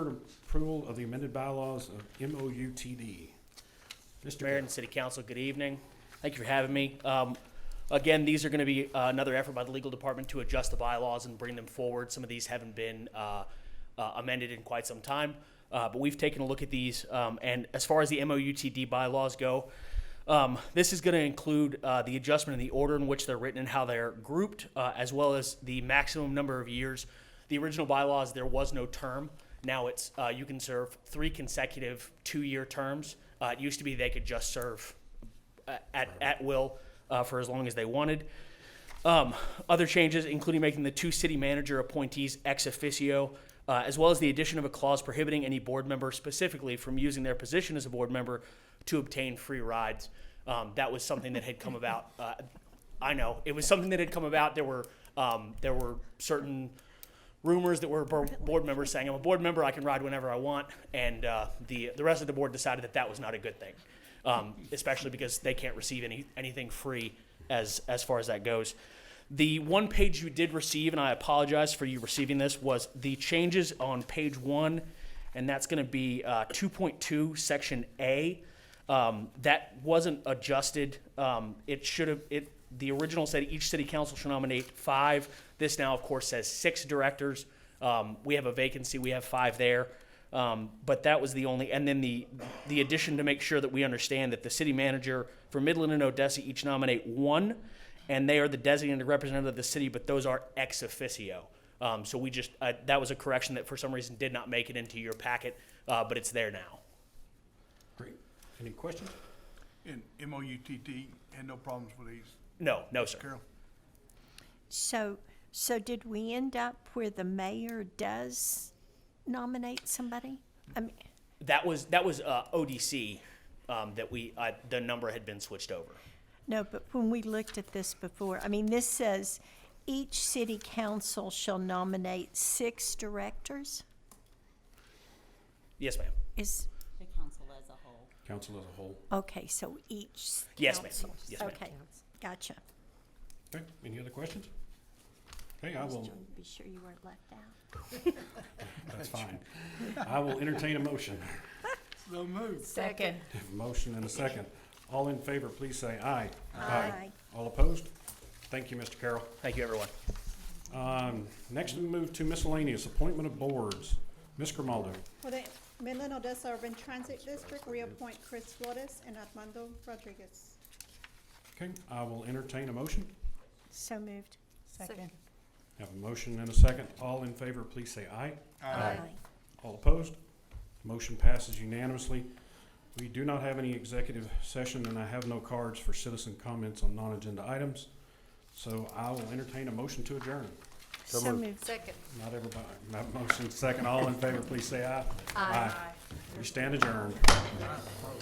approval of the amended bylaws of MOUTD. Mr. Mayor Mayor, and City Council, good evening. Thank you for having me. Um, Again, these are going to be uh, another effort by the legal department to adjust the bylaws and bring them forward. Some of these haven't been uh, uh, amended in quite some time, Uh, but we've taken a look at these. um, And as far as the MOUTD bylaws go, um, this is going to include uh, the adjustment in the order in which they're written and how they're grouped, uh, as well as the maximum number of years. The original bylaws, there was no term. Now it's uh, you can serve three consecutive two-year terms. Uh, it used to be they could just serve uh, at at will uh, for as long as they wanted. Um, other changes, including making the two city manager appointees ex officio, uh, as well as the addition of a clause prohibiting any board member specifically from using their position as a board member to obtain free rides. Um, that was something that had come about. Uh, I know it was something that had come about. There were um, there were certain rumors that were bo- board members saying, "I'm a board member. I can ride whenever I want," and uh, the the rest of the board decided that that was not a good thing, um, especially because they can't receive any anything free as as far as that goes. The one page you did receive, and I apologize for you receiving this, was the changes on page one, and that's going to be uh, 2.2, section A. Um, that wasn't adjusted. Um, it should have, it, the original said each city council shall nominate five. This now, of course, says six directors. Um, we have a vacancy, we have five there. Um, but that was the only, and then the, the addition to make sure that we understand that the city manager for Midland and Odessa each nominate one, and they are the designated representative of the city, but those are ex officio. Um, so we just, uh, that was a correction that for some reason did not make it into your packet, uh, but it's there now. great. Any questions? And MOUTD had no problems with these, No, no, sir. Carol? So, so did we end up where the mayor does nominate somebody? I mean, That was that was uh, ODC um, that we uh, the number had been switched over. no, but when we looked at this before, I mean, this says each city council shall nominate six directors? Yes, ma'am. Is, the council as a whole. Council as a whole. okay, so each Yes, ma'am. council. Yes, ma'am. Okay, gotcha. Okay, any other questions? Okay, I will, to be sure you weren't left out. that's fine. I will entertain a motion. So moved. Second. Motion and a second. All in favor, please say aye. Aye. All opposed? Thank you, Mr. Carroll. Thank you, everyone. Um, next we move to miscellaneous, appointment of boards. Ms. Grimaldo. For the Midland Odessa Urban Transit District, reappoint Chris Flores and Armando Rodriguez. Okay, I will entertain a motion. So moved. Second. Have a motion and a second. All in favor, please say aye. All opposed? Motion passes unanimously. We do not have any executive session, and I have no cards for citizen comments on non-agenda items. So I will entertain a motion to adjourn. So moved. Second. Not everybody, not motion second. All in favor, please say aye. Aye. We stand adjourned.